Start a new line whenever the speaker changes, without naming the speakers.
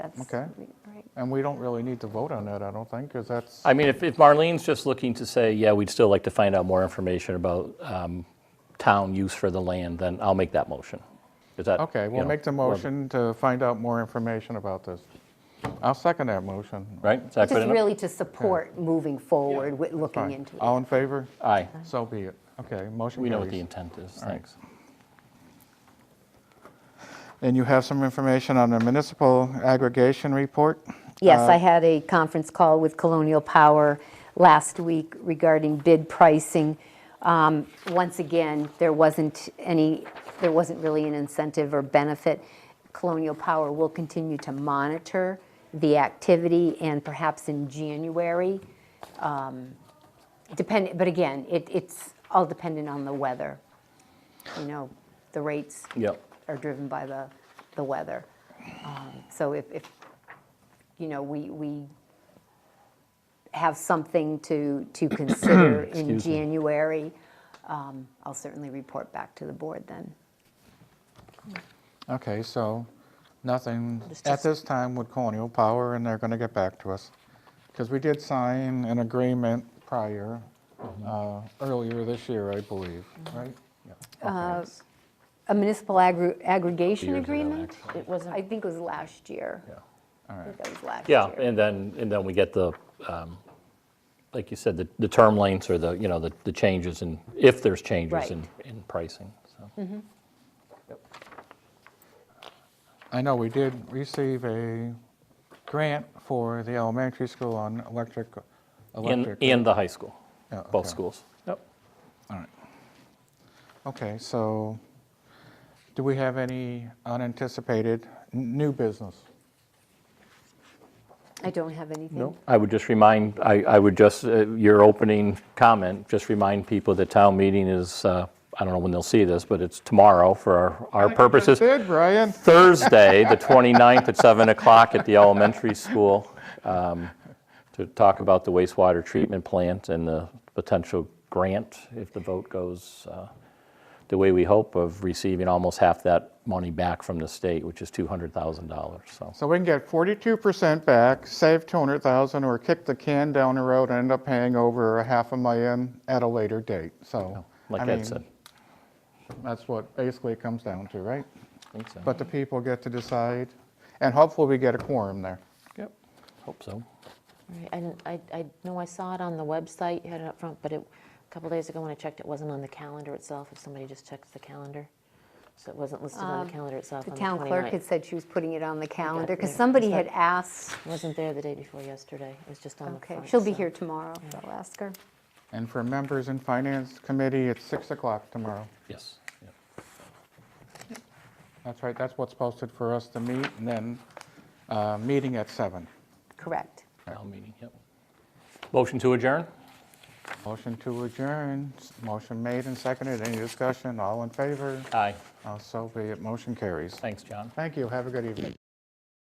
that's.
Okay.
Right.
And we don't really need to vote on that, I don't think, because that's,
I mean, if, if Marlene's just looking to say, yeah, we'd still like to find out more information about um, town use for the land, then I'll make that motion. Is that?
okay,
you
we'll
know,
make the
well,
motion to find out more information about this. I'll second that motion.
Right? Is that good
Just
enough?
really to support moving forward with looking
Fine.
into it.
All in favor?
Aye.
So be it. Okay, motion
We know what the
carries.
intent is.
right.
Thanks.
And you have some information on the municipal aggregation report?
Yes, I had a conference call with Colonial Power last week regarding bid pricing. Um, Once again, there wasn't any, there wasn't really an incentive or benefit. Colonial Power will continue to monitor the activity and perhaps in January. um, Depend, but again, it, it's all dependent on the weather. You know, the rates
Yep.
are driven by the, the weather. Um, So if, if, you know, we, we have something to, to consider in
Excuse me.
January, um, I'll certainly report back to the board then.
Okay, so nothing
It's
at
just-
this time with Colonial Power, and they're going to get back to us. Because we did sign an agreement prior,
Mm-hmm.
uh, earlier this year, I believe, right? Yeah. Okay.
Uh, A municipal aggr- aggregation
Oh, Years ago,
agreement?
actually.
It wasn't-
I think it was last year.
All
I
right.
think that was last
Yeah,
year.
and then, and then we get the, um, like you said, the, the term lengths or the, you know, the, the changes in, if there's changes in, in pricing, so.
I know we did receive a grant for the elementary school on electric,
And,
electric.
and the high school,
Yeah,
both
okay.
schools. Yep.
All right. Okay, so do we have any unanticipated n- new business?
I don't have anything.
I would just remind, I, I would just, uh, your opening comment, just remind people that town meeting is, uh, I don't know when they'll see this, but it's tomorrow for our, our purposes.
Did, Brian?
Thursday, the 29th at 7 o'clock at the elementary school um, to talk about the wastewater treatment plant and the potential grant, if the vote goes uh, the way we hope, of receiving almost half that money back from the state, which is $200,000, so.
So we can get 42% back, save 200,000, or kick the can down the road and end up paying over a half a million at a later date. So, I
Like
mean,
Ed said.
that's what basically it comes down to, right?
I think so.
But the people get to decide, and hopefully we get a quorum there.
Yep, hope so.
Right, I didn't- I, I know I saw it on the website, you had it up front, but it, a couple days ago when I checked, it wasn't on the calendar itself, if somebody just checks the calendar. So it wasn't listed on the calendar itself
Um, The
on the
town clerk
29th.
had said she was putting it on the calendar, because
yeah,
somebody
is
had
that-
asked,
It Wasn't there the day before yesterday, it was just on the
okay,
front.
she'll be
so-
here tomorrow, so I'll ask her.
And for members in Finance Committee, it's 6 o'clock tomorrow.
Yes. yep.
That's right, that's what's posted for us to meet, and then uh, meeting at 7.
Correct.
Town meeting, yep. Motion to adjourn?
Motion to adjourn, motion made and seconded, any discussion, all in favor?
Aye.
Uh, So be it, motion carries.
Thanks, John.
Thank you, have a good evening.